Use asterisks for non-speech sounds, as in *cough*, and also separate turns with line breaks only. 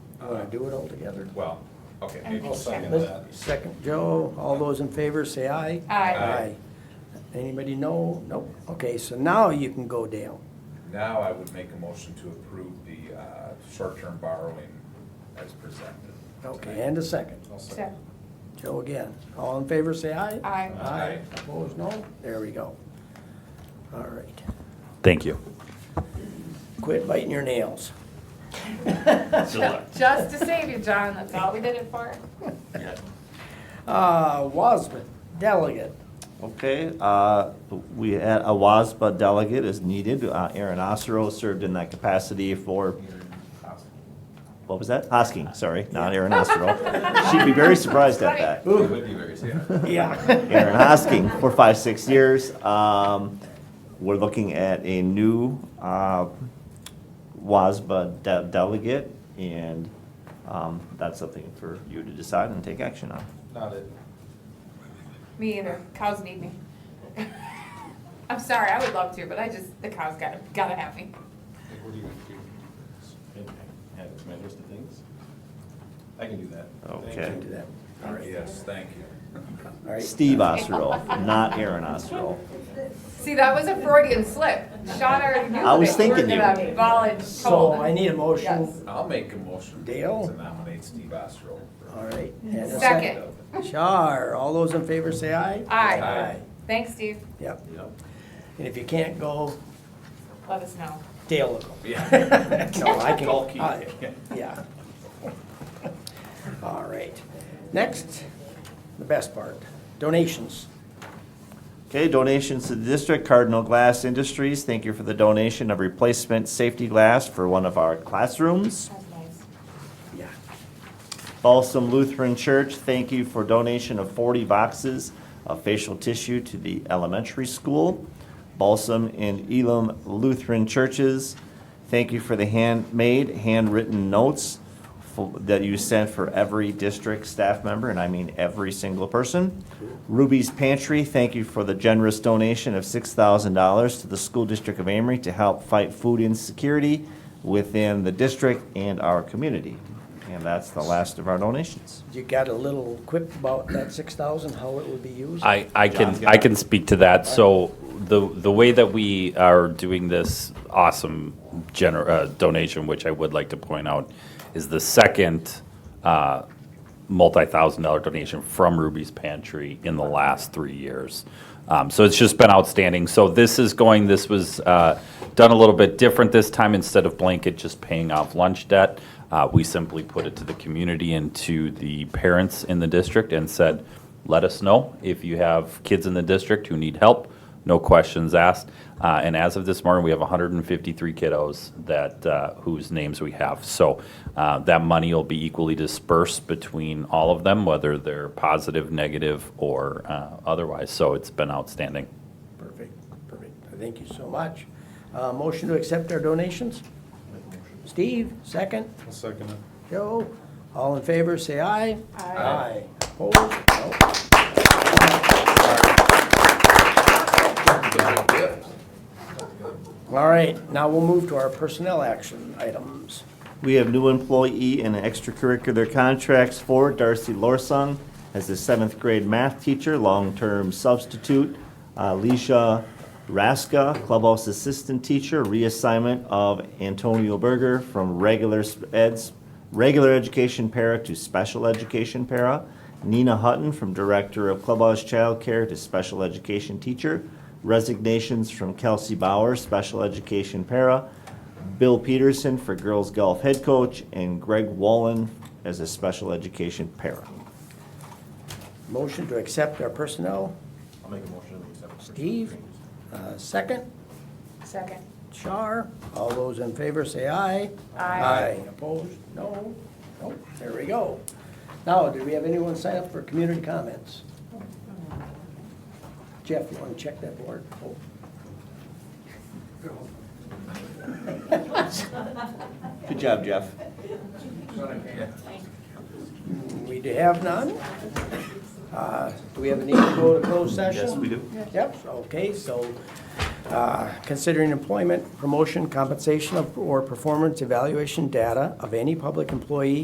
gonna do it all together.
Well, okay, maybe
I'll
second
second
that.
Second, Joe, all those in favor, say aye.
Aye.
Aye.
Anybody no? Nope. Okay, so now you can go, Dale.
Now I would make a motion to approve the uh, short-term borrowing as presented.
Okay, and a second.
I'll
So,
second.
Joe again. All in favor, say aye.
aye.
Aye.
Opposed, no? There we go. All right.
Thank you.
Quit biting your nails.
*laughs* Just to save you, John, that's all we did it for.
Uh, Wasman,
*laughs*
delegate.
Okay, uh, we had a WASBA delegate is needed. Uh, Aaron Osro served in that capacity for, what was that? Hosking, sorry, not Aaron Osro. She'd be very surprised at that.
It would be very, yeah.
Yeah. *laughs*
Aaron Hosking for five, six years. Um, We're looking at a new uh, WASBA de- delegate, and um, that's something for you to decide and take action on.
Not it.
Me either. Cows need me. *laughs* I'm sorry, I would love to, but I just, the cows gotta, gotta have me.
Like, what do you want to do? Add it to my list of things? I can do that. Thank
Okay.
you.
Do that. All right.
Yes, thank you.
All right.
Steve Osro, not Aaron Osro.
See, that was a Freudian slip. Sean already knew
I was
that you were
thinking you
gonna
would.
volunteer.
So I need a
Yes.
motion.
I'll make a motion
Dale?
to nominate Steve Osro. for-
All right. and a
Second.
Char, all those in favor, say aye.
Aye.
Aye.
Thanks, Steve.
Yep.
Yep.
And if you can't go,
Let us know.
Dale will go.
Yeah.
*laughs* No, I can.
Bulky. *laughs*
I- Yeah. All right. Next, the best part, donations.
Okay, donations to the district, Cardinal Glass Industries, thank you for the donation of replacement safety glass for one of our classrooms.
That's nice.
Yeah.
Balsam Lutheran Church, thank you for donation of 40 boxes of facial tissue to the elementary school. Balsam and Elam Lutheran Churches, thank you for the handmade, handwritten notes fo- that you sent for every district staff member, and I mean every single person. Ruby's Pantry, thank you for the generous donation of $6,000 to the School District of Amory to help fight food insecurity within the district and our community. And that's the last of our donations.
You got a little quip about that six thousand, how it would be used?
I, I can, I can speak to that. So the, the way that we are doing this awesome gener, uh, donation, which I would like to point out, is the second, uh, multi-thousand dollar donation from Ruby's Pantry in the last three years. Um, so it's just been outstanding. So this is going, this was, uh, done a little bit different this time. Instead of blanket just paying off lunch debt, uh, we simply put it to the community and to the parents in the district and said, let us know if you have kids in the district who need help, no questions asked. Uh, and as of this morning, we have 153 kiddos that uh, whose names we have. So uh, that money will be equally dispersed between all of them, whether they're positive, negative, or uh, otherwise. So it's been outstanding.
Perfect, perfect. Thank you so much. Uh, motion to accept our donations? Steve, second.
I'll second it.
Joe, all in favor, say aye.
Aye.
Opposed? No. All right, now we'll move to our personnel action items.
We have new employee and extracurricular contracts for Darcy Lorsong as a seventh grade math teacher, long-term substitute. Alicia Raska, clubhouse assistant teacher, reassignment of Antonio Berger from regular sp- eds, regular education para to special education para. Nina Hutton from director of clubhouse childcare to special education teacher. Resignations from Kelsey Bauer, special education para. Bill Peterson for girls golf head coach, and Greg Wallen as a special education para.
Motion to accept our personnel,
I'll make a motion to accept. the first
Steve,
reading.
uh, second.
Second.
Char, all those in favor say aye.
Aye.
Opposed? No? Nope, there we go. Now, do we have anyone sign up for community comments? Jeff, you wanna check that board? Oh.
Good job, Jeff.
We do have none. Uh, Do we have a need to go to closed session?
Yes, we do.
Yep, okay, so uh, considering employment, promotion, compensation, of- or performance evaluation data of any public employee